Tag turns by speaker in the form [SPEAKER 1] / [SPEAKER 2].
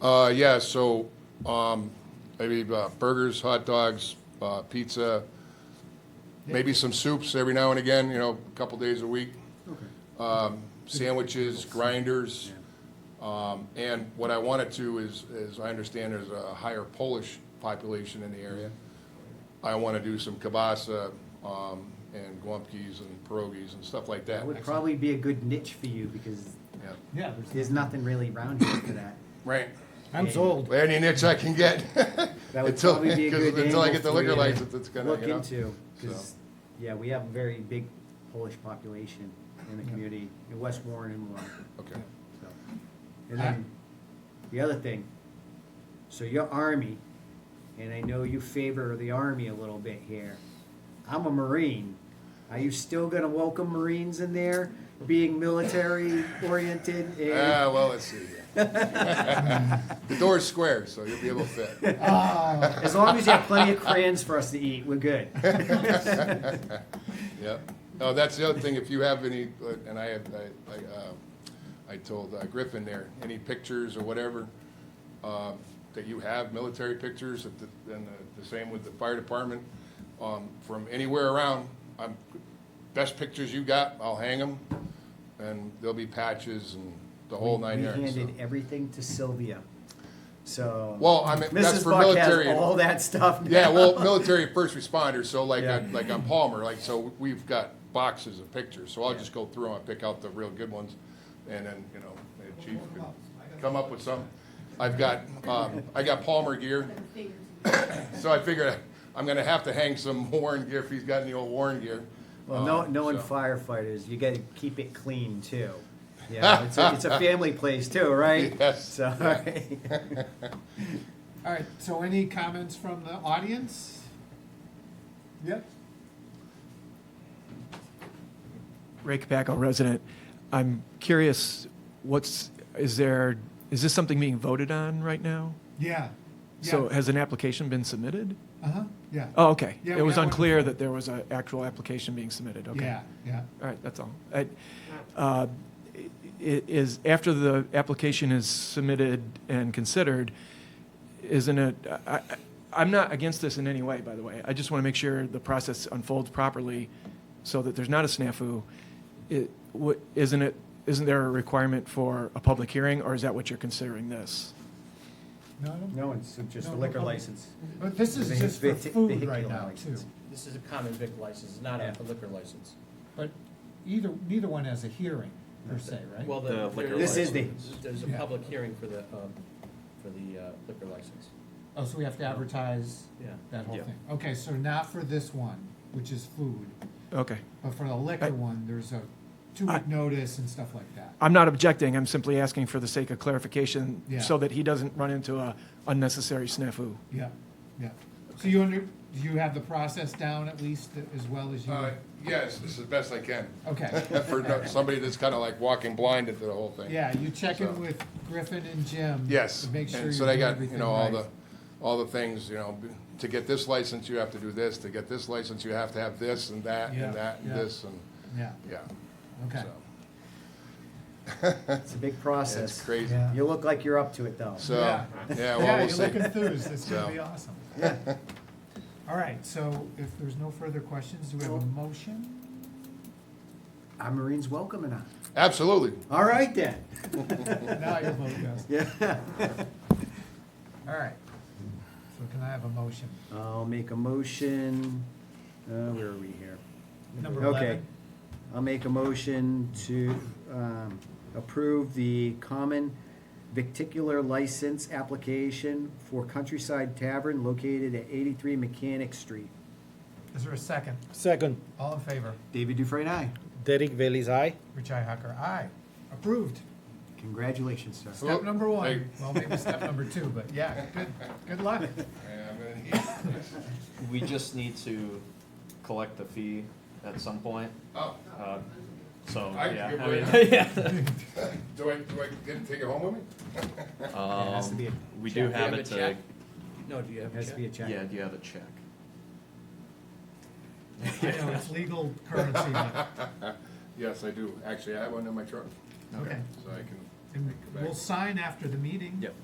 [SPEAKER 1] Uh, yeah, so, um, maybe uh, burgers, hot dogs, uh, pizza, maybe some soups every now and again, you know, a couple days a week. Um, sandwiches, grinders. Um, and what I wanted to is, is I understand there's a higher Polish population in the area. I want to do some kielbasa, um, and gumpkies and pierogies and stuff like that.
[SPEAKER 2] That would probably be a good niche for you because
[SPEAKER 1] Yeah.
[SPEAKER 3] Yeah.
[SPEAKER 2] there's nothing really around here for that.
[SPEAKER 1] Right.
[SPEAKER 3] I'm sold.
[SPEAKER 1] Any niche I can get.
[SPEAKER 2] That would
[SPEAKER 1] Until-
[SPEAKER 2] probably be a
[SPEAKER 1] 'cause
[SPEAKER 2] good
[SPEAKER 1] Until I
[SPEAKER 2] angle
[SPEAKER 1] get the
[SPEAKER 2] for
[SPEAKER 1] liquor
[SPEAKER 2] you to
[SPEAKER 1] license, it's gonna,
[SPEAKER 2] look
[SPEAKER 1] you know.
[SPEAKER 2] into because yeah, we have a very big Polish population in the community in West Warren and Warren.
[SPEAKER 1] Okay.
[SPEAKER 2] So, and
[SPEAKER 1] Ah.
[SPEAKER 2] then the other thing, so your army, and I know you favor the army a little bit here. I'm a Marine. Are you still gonna welcome Marines in there, being military oriented? And
[SPEAKER 1] Ah, well, let's see here. The door's square, so you'll be able to fit.
[SPEAKER 3] Ah,
[SPEAKER 2] as long as you have plenty of crayons for us to eat, we're good.
[SPEAKER 1] Yep. No, that's the other thing, if you have any, uh, and I, had- I, I, uh, I told uh, Griffin there, any pictures or whatever, um, that you have, military pictures, if the- and the- the same with the fire department, um, from anywhere around, I'm, best pictures you got, I'll hang them, and there'll be patches and the whole nine
[SPEAKER 2] we
[SPEAKER 1] yards. so.
[SPEAKER 2] handed everything to Sylvia. So
[SPEAKER 1] Well, I mean, that's
[SPEAKER 2] Mrs.
[SPEAKER 1] for
[SPEAKER 2] Buck
[SPEAKER 1] military.
[SPEAKER 2] has all that stuff.
[SPEAKER 1] Yeah,
[SPEAKER 2] now.
[SPEAKER 1] well, military first responders, so like,
[SPEAKER 2] Yeah.
[SPEAKER 1] on- like on Palmer, like, so we've got boxes of pictures, so I'll just go through them, I'll pick out the real good ones, and then, you know, the chief can come up with some. I've got, um, I got Palmer gear, so I figured I'm gonna have to hang some Warren gear if he's got any old Warren gear.
[SPEAKER 2] Well, no,
[SPEAKER 1] Um,
[SPEAKER 2] knowing
[SPEAKER 1] so-
[SPEAKER 2] firefighters, you gotta keep it clean too. Yeah, it's a, it's a family place too, right?
[SPEAKER 1] Yes.
[SPEAKER 2] So,
[SPEAKER 3] all right, so any comments from the audience? Yep.
[SPEAKER 4] Ray Capaco, resident. I'm curious, what's, is there, is this something being voted on right now?
[SPEAKER 3] Yeah.
[SPEAKER 4] So has an application been submitted?
[SPEAKER 3] Uh-huh, yeah.
[SPEAKER 4] Oh, okay.
[SPEAKER 3] Yeah,
[SPEAKER 4] It
[SPEAKER 3] we
[SPEAKER 4] was
[SPEAKER 3] have one.
[SPEAKER 4] unclear that there was an actual application being submitted, okay.
[SPEAKER 3] Yeah, yeah.
[SPEAKER 4] All right, that's all. I- uh, i- Is, after the application is submitted and considered, isn't it, I, I- I'm not against this in any way, by the way. I just want to make sure the process unfolds properly so that there's not a snafu. It, what, isn't it, isn't there a requirement for a public hearing, or is that what you're considering this?
[SPEAKER 3] No, I don't-
[SPEAKER 2] no, it's just a
[SPEAKER 3] No,
[SPEAKER 2] liquor
[SPEAKER 3] no.
[SPEAKER 2] license.
[SPEAKER 3] But this is
[SPEAKER 2] Vehi-
[SPEAKER 3] just for
[SPEAKER 2] vehi-
[SPEAKER 3] food right
[SPEAKER 2] vehicular
[SPEAKER 3] now, too.
[SPEAKER 2] license.
[SPEAKER 5] This is a common vic license, it's not
[SPEAKER 2] Yeah.
[SPEAKER 5] a liquor license.
[SPEAKER 3] But either, neither one has a hearing, per se, right?
[SPEAKER 5] Well,
[SPEAKER 6] The
[SPEAKER 5] the.
[SPEAKER 6] liquor
[SPEAKER 2] This is
[SPEAKER 5] license- There's a
[SPEAKER 3] Yeah.
[SPEAKER 5] public hearing for the, um, for the uh, liquor license.
[SPEAKER 3] Oh, so we have to advertise
[SPEAKER 5] Yeah.
[SPEAKER 3] that whole
[SPEAKER 6] Yeah.
[SPEAKER 3] thing. Okay, so not for this one, which is food,
[SPEAKER 4] Okay.
[SPEAKER 3] but for the liquor
[SPEAKER 4] I-
[SPEAKER 3] one, there's a two-week
[SPEAKER 4] I-
[SPEAKER 3] notice and stuff like that.
[SPEAKER 4] I'm not objecting, I'm simply asking for the sake of clarification
[SPEAKER 3] Yeah.
[SPEAKER 4] so that he doesn't run into a unnecessary snafu.
[SPEAKER 3] Yeah, yeah. So you under, do you have the process down at least as well as you?
[SPEAKER 1] Uh, yes, this is the best I can,
[SPEAKER 3] Okay,
[SPEAKER 1] for no- somebody that's kinda like walking blind into the whole thing.
[SPEAKER 3] yeah, you check in
[SPEAKER 1] So-
[SPEAKER 3] with Griffin and Jim.
[SPEAKER 1] Yes,
[SPEAKER 3] To make sure
[SPEAKER 1] and
[SPEAKER 3] you
[SPEAKER 1] so
[SPEAKER 3] do
[SPEAKER 1] they got, you
[SPEAKER 3] everything
[SPEAKER 1] know, all
[SPEAKER 3] right.
[SPEAKER 1] the, all the things, you know, b- to get this license, you have to do this, to get this license, you have to have this and that
[SPEAKER 3] Yeah,
[SPEAKER 1] and that and
[SPEAKER 3] yeah.
[SPEAKER 1] this and,
[SPEAKER 3] Yeah,
[SPEAKER 1] yeah.
[SPEAKER 3] okay.
[SPEAKER 1] so.
[SPEAKER 2] It's a big process.
[SPEAKER 1] It's crazy.
[SPEAKER 3] Yeah.
[SPEAKER 2] You look like you're up to it though.
[SPEAKER 1] So,
[SPEAKER 3] Yeah.
[SPEAKER 1] yeah, well, we'll
[SPEAKER 3] Yeah,
[SPEAKER 1] see.
[SPEAKER 3] you're looking through, this It's gonna
[SPEAKER 1] So.
[SPEAKER 3] be awesome. All right, so if there's no further questions, do we have a
[SPEAKER 2] Well-
[SPEAKER 3] motion?
[SPEAKER 2] Our Marines welcome or not?
[SPEAKER 1] Absolutely.
[SPEAKER 2] All right then.
[SPEAKER 3] Now I can vote yes.
[SPEAKER 2] Yeah.
[SPEAKER 3] All right. So can I have a motion?
[SPEAKER 2] I'll make a motion, uh, where are we here?
[SPEAKER 3] Number
[SPEAKER 2] Okay.
[SPEAKER 3] 11.
[SPEAKER 2] I'll make a motion to um, approve the common victicular license application for Countryside Tavern located at 83 Mechanic Street.
[SPEAKER 3] Is there a second?
[SPEAKER 7] Second,
[SPEAKER 3] All in favor?
[SPEAKER 2] David Dufresne, aye.
[SPEAKER 7] Derek Bailey's aye.
[SPEAKER 3] Richi Hacker, aye. Approved.
[SPEAKER 2] Congratulations, sir.
[SPEAKER 3] Step number one.
[SPEAKER 1] Hey.
[SPEAKER 3] Well, maybe step number two, but yeah, good, good luck.
[SPEAKER 1] Yeah, I'm gonna need-
[SPEAKER 6] We just need to collect the fee at some point,
[SPEAKER 1] Oh,
[SPEAKER 6] uh, so,
[SPEAKER 1] I can
[SPEAKER 6] yeah.
[SPEAKER 1] get
[SPEAKER 6] I
[SPEAKER 1] rid of
[SPEAKER 6] mean, yeah.
[SPEAKER 1] do I, do I get to take it home with me?
[SPEAKER 2] It has to be a-
[SPEAKER 6] We do
[SPEAKER 5] Do you
[SPEAKER 6] have it
[SPEAKER 5] a
[SPEAKER 6] to,
[SPEAKER 5] check? No, do you have a
[SPEAKER 2] Has to be a
[SPEAKER 5] check?
[SPEAKER 2] check.
[SPEAKER 6] yeah, do you have a check?
[SPEAKER 3] I know, it's legal currency, but,
[SPEAKER 1] Yes, I do. Actually, I have one in my truck,
[SPEAKER 3] okay.
[SPEAKER 1] so I can.
[SPEAKER 3] And we'll sign after the meeting.
[SPEAKER 6] Yep.